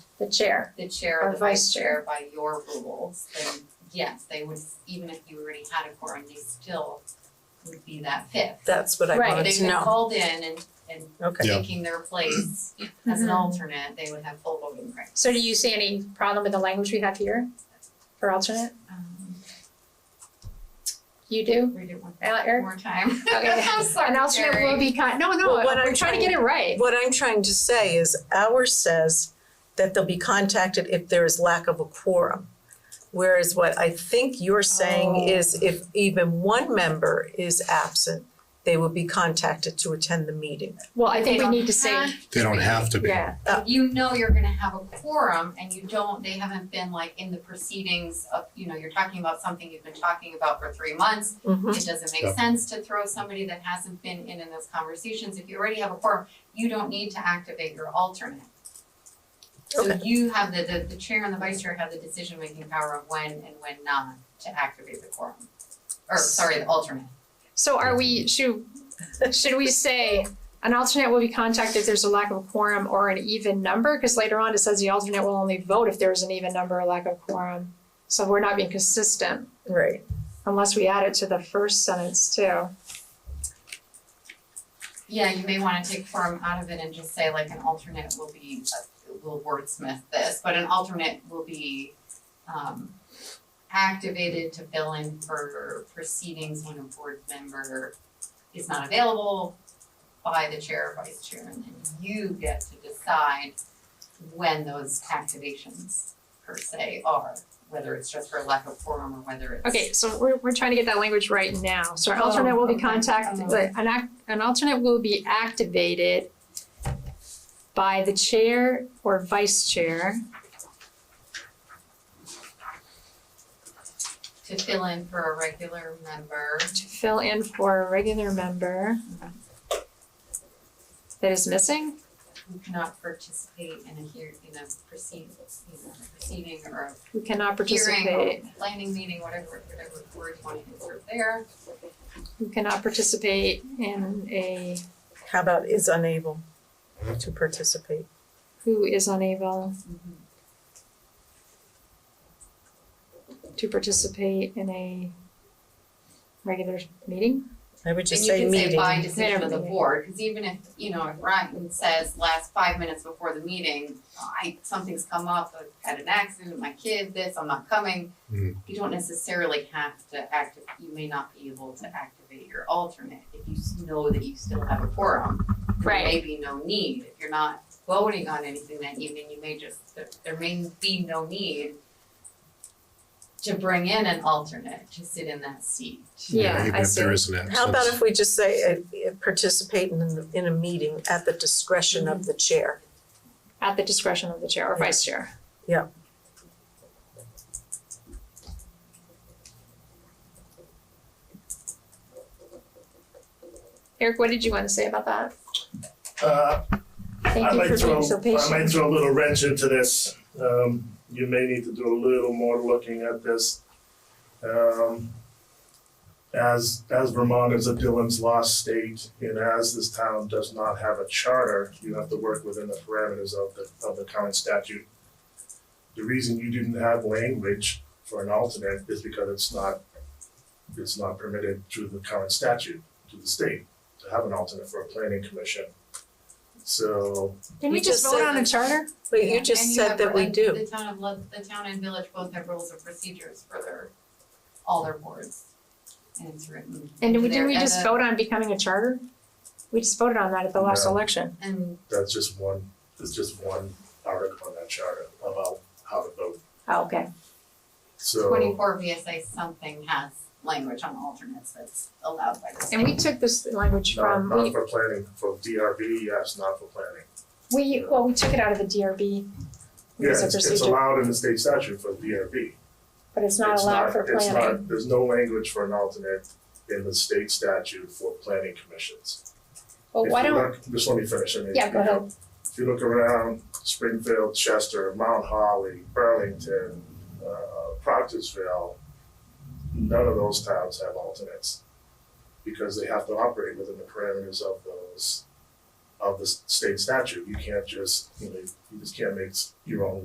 the chair. the chair Or or the vice vice chair by your rules, then yes, they would, even if you already had a quorum, they still would be that fifth. That's what I Right. wanted If to they were know. called in and and Okay. Yeah. taking their place as an Mhm. alternate, they would have full voting rights. So do you see any problem with the language we have here for alternate? Um, You do? read it one Uh, Eric? more time. Okay. I'm An sorry, alternate will Eric. be con, no, no, Well, what we're I'm trying to get it right. What I'm trying to say is ours says that they'll be contacted if there is lack of a quorum. Whereas what I think you're Oh. saying is if even one member is absent, they will be contacted to attend the meeting. Well, I think we need to They don't say, have- They don't have to be. yeah, Uh, You know you're gonna have a quorum and you don't, they haven't been like in the proceedings of, you know, you're talking about something you've been talking about for three months. Mhm. It doesn't Yeah. make sense to throw somebody that hasn't been in in those conversations. If you already have a quorum, you don't need to activate your alternate. So Okay. you have the, the, the chair and the vice chair have the decision-making power of when and when not to activate the quorum. Or, sorry, the alternate. so are we, should, should we say an alternate will be contacted if there's a lack of a quorum or an even number? Cause later on it says the alternate will only vote if there's an even number or lack of quorum. So we're not being consistent Right. unless we add it to the first sentence too. Yeah, you may wanna take quorum out of it and just say like an alternate will be, will wordsmith this, but an alternate will be um activated to fill in for proceedings when a board member is not available by the chair or vice chair, and then you get to decide when those activations per se are, whether it's just for lack of quorum or whether it's Okay, so we're, we're trying to get that language right now, so our Oh, alternate will be okay. contacted, Oh. an act, an alternate will be activated by the chair or vice chair to fill in for a regular member. to fill in for a regular member that is missing, who cannot participate in a hear, in a proceed, you know, proceeding or who cannot a participate, hearing or planning meeting, whatever, whatever word you want to insert there. who cannot participate in a, How about is unable to participate? who is unable to participate in a regular meeting? I would just And say you can say meeting. by decision of the Meeting. board, because even if, you know, if Ryan says last five minutes before the meeting, I, something's come up, I've had an accident, my kid, this, I'm not coming. Mm. You don't necessarily have to act, you may not be able to activate your alternate if you s- know that you still have a quorum. there may be no need. If you're not voting on anything that evening, you may just, there- there may be no need to bring in an alternate to sit in that seat. Yeah, I Even if there see. is an absence. How about if we just say uh, participate in the- in a meeting at the discretion of the chair? At the discretion of the chair or vice chair. Yeah. Eric, what did you want to say about that? Uh, Thank I you might for throw, being so I might patient. throw a little wrench into this. Um, you may need to do a little more looking at this. Um, as, as Vermont is a Dillon's law state, and as this town does not have a charter, you have to work within the parameters of the, of the current statute. The reason you didn't have language for an alternate is because it's not, it's not permitted through the current statute, to the state, to have an alternate for a planning commission. So, Didn't we You just just vote said on a that- charter? But you just said that we And you have, do. and the town of Lud, the town and village both have rules of procedures for their, all their boards. And it's written. And did we, there. didn't we And just the- vote on becoming a charter? We just voted on that at the last No. election. And That's just one, that's just one article in that charter about how to vote. Oh, okay. So, twenty-four VSA something has language on alternates that's allowed by the state. And we took this language not, from, not we, for planning, for DRB, yes, not for planning. we, well, we took it out of the DRB. Yeah, as a it's, it's procedure, allowed in the state statute for DRB. but it's not allowed for planning. It's not, there's no language for an alternate in the state statute for planning commissions. Well, If why you don't, look- Just let me finish, I mean, Yeah, if go you ahead. look- If you look around Springfield, Chester, Mount Holly, Burlington, uh, Proctorsville, none of those towns have alternates because they have to operate within the parameters of those, of the s- state statute. You can't just, you know, you just can't make s- your own